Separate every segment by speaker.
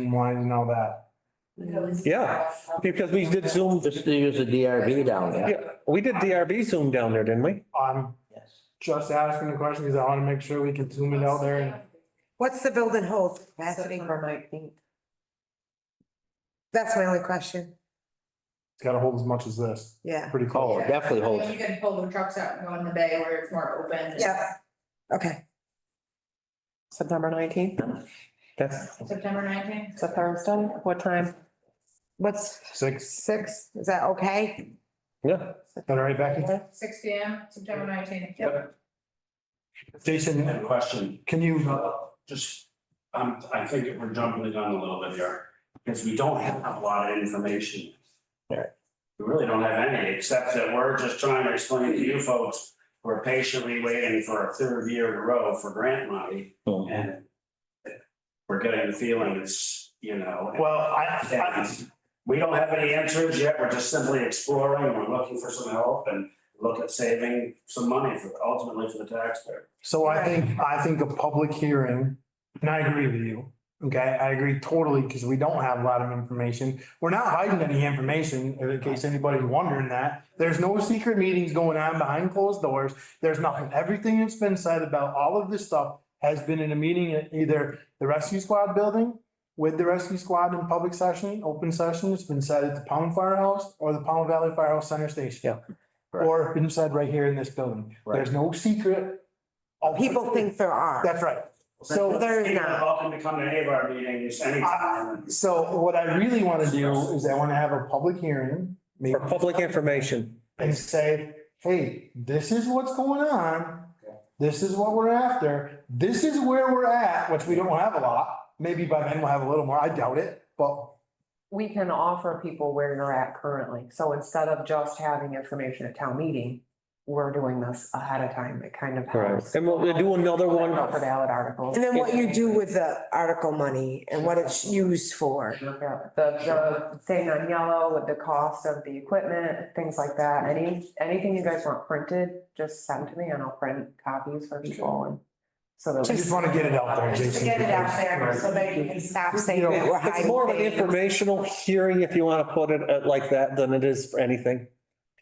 Speaker 1: and wine and all that.
Speaker 2: Yeah, because we did Zoom,
Speaker 3: Just to use the DRB down there.
Speaker 2: yeah, we did DRB Zoom down there, didn't we?
Speaker 1: I'm
Speaker 3: Yes.
Speaker 1: just asking the question because I want to make sure we can zoom it out there and
Speaker 4: What's the building hold capacity for nineteenth? That's my only question,
Speaker 1: it's got to hold as much as this.
Speaker 4: yeah,
Speaker 1: Pretty
Speaker 3: Oh,
Speaker 1: close.
Speaker 3: it definitely holds.
Speaker 5: You can pull the trucks out and go in the bay where it's more open.
Speaker 4: yeah, okay.
Speaker 6: September nineteenth,
Speaker 2: That's,
Speaker 5: September nineteenth.
Speaker 6: it's a Thursday, what time?
Speaker 4: What's
Speaker 1: Six,
Speaker 4: six, is that okay?
Speaker 2: yeah,
Speaker 1: is that all right, Becky?
Speaker 5: Six P M, September nineteenth.
Speaker 7: I have a
Speaker 1: Jason,
Speaker 7: question,
Speaker 1: can you,
Speaker 7: just, um, I think we're jumping the gun a little bit here, because we don't have a lot of information. We really don't have any, except that we're just trying to explain to you folks, we're patiently waiting for a third year in a row for grant money,
Speaker 1: Mm-hmm.
Speaker 7: and we're getting the feeling it's, you know.
Speaker 1: well, I, I,
Speaker 7: and We don't have any answers yet, we're just simply exploring, we're looking for some help, and look at saving some money for, ultimately for the taxpayer.
Speaker 1: So I think, I think a public hearing, and I agree with you, okay, I agree totally, because we don't have a lot of information. We're not hiding any information, in case anybody's wondering that. There's no secret meetings going on behind closed doors. There's nothing, everything that's been said about all of this stuff has been in a meeting at either the rescue squad building with the rescue squad in public session, open session, it's been said at the Pound Firehouse or the Pound Valley Firehouse Center Station.
Speaker 3: Correct.
Speaker 1: Or been said right here in this building. There's no secret.
Speaker 4: People think there are,
Speaker 1: That's right. So,
Speaker 4: there is
Speaker 7: You're
Speaker 4: not,
Speaker 7: welcome to come to any of our meetings anytime.
Speaker 1: so what I really want to do is I want to have a public hearing, maybe,
Speaker 2: for public information.
Speaker 1: and say, hey, this is what's going on. This is what we're after. This is where we're at, which we don't have a lot. Maybe by then we'll have a little more. I doubt it, but
Speaker 6: We can offer people where you're at currently, so instead of just having information at town meeting, we're doing this ahead of time, it kind of helps.
Speaker 2: And we'll we'll do another one.
Speaker 6: For ballot articles.
Speaker 4: and then what you do with the article money and what it's used for.
Speaker 6: Yeah, The, the thing on yellow with the cost of the equipment, things like that, any, anything you guys want printed, just send to me and I'll print copies for people and. So that.
Speaker 1: I
Speaker 6: we-
Speaker 1: just want to get it out there,
Speaker 5: Just
Speaker 1: Jason.
Speaker 5: to get it out there so that you can stop.
Speaker 4: Stop saying
Speaker 2: You know,
Speaker 4: that we're
Speaker 2: It's more of an
Speaker 4: hiding things.
Speaker 2: informational hearing, if you want to put it uh, like that, than it is for anything.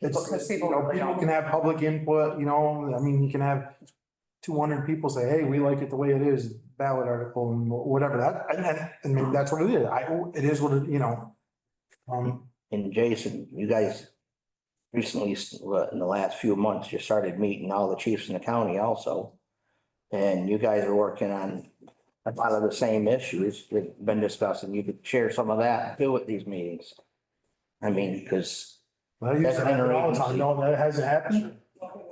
Speaker 1: It's,
Speaker 6: Because
Speaker 1: you
Speaker 6: people
Speaker 1: know,
Speaker 6: really
Speaker 1: people
Speaker 6: don't-
Speaker 1: can have public input, you know, I mean, you can have two hundred people say, hey, we like it the way it is, ballot article and wh- whatever that, and, and, and maybe that's what it is. I, it is what, it you know. Um,
Speaker 3: And Jason, you guys recently, uh, in the last few months, you started meeting all the chiefs in the county also. And you guys are working on a lot of the same issues we've been discussing. You could share some of that too at these meetings. I mean, because,
Speaker 1: that used to
Speaker 3: That's
Speaker 1: happen all the time,
Speaker 3: interagency.
Speaker 1: no, that hasn't happened.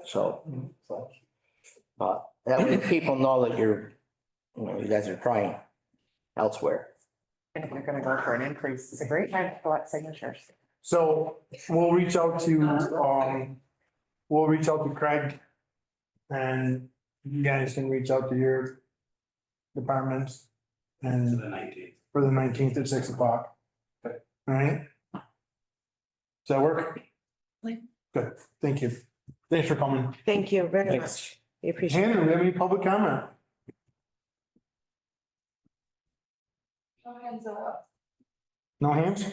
Speaker 3: so. But that way people know that you're, you know, you guys are trying elsewhere.
Speaker 6: And if you're gonna go for an increase, it's a great time to collect signatures.
Speaker 1: So we'll reach out to, um, we'll reach out to Craig. And you guys can reach out to your departments
Speaker 7: To
Speaker 1: and
Speaker 7: the nineteenth.
Speaker 1: for the nineteenth at six o'clock. All right? Does that work?
Speaker 5: Like-
Speaker 1: Good, thank you. Thanks for coming.
Speaker 4: Thank you very
Speaker 2: Thanks.
Speaker 4: much, we appreciate it.
Speaker 1: Hannah, do we have any public comment? No hands?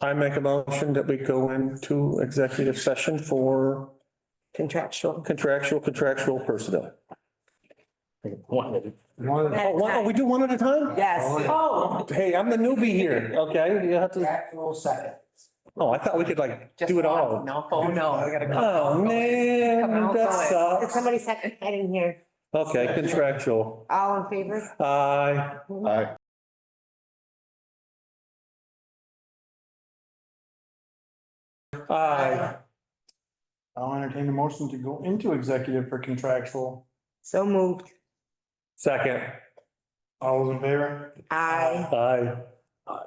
Speaker 2: I make a motion that we go into executive session for
Speaker 4: contractual.
Speaker 2: contractual, contractual personnel.
Speaker 3: One,
Speaker 1: No.
Speaker 2: Oh, wow, we do one at a time?
Speaker 4: Yes,
Speaker 6: Oh.
Speaker 2: Hey, I'm the newbie here, okay? You have to,
Speaker 3: Actual second.
Speaker 2: oh, I thought we could like do it all.
Speaker 6: No, oh, no, we gotta. come
Speaker 2: Oh,
Speaker 6: out.
Speaker 2: man, that
Speaker 4: Oh. did
Speaker 2: sucks.
Speaker 4: somebody second, I didn't hear,
Speaker 2: Okay, contractual.
Speaker 4: all in favor?
Speaker 2: Aye. Aye. Aye.
Speaker 1: I'll entertain a motion to go into executive for contractual.
Speaker 4: So moved,
Speaker 2: Second.
Speaker 1: All those in favor?
Speaker 4: aye.
Speaker 2: Aye.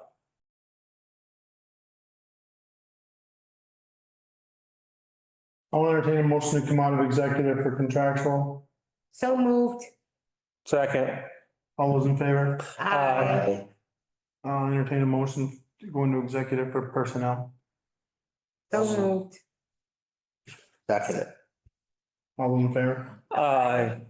Speaker 1: I'll entertain a motion to come out of executive for contractual.
Speaker 4: So moved,
Speaker 2: Second.
Speaker 1: All those in favor?
Speaker 4: aye.
Speaker 1: I'll entertain a motion to go into executive for personnel.
Speaker 4: So moved,
Speaker 3: Second.
Speaker 1: All those in favor?
Speaker 2: Aye.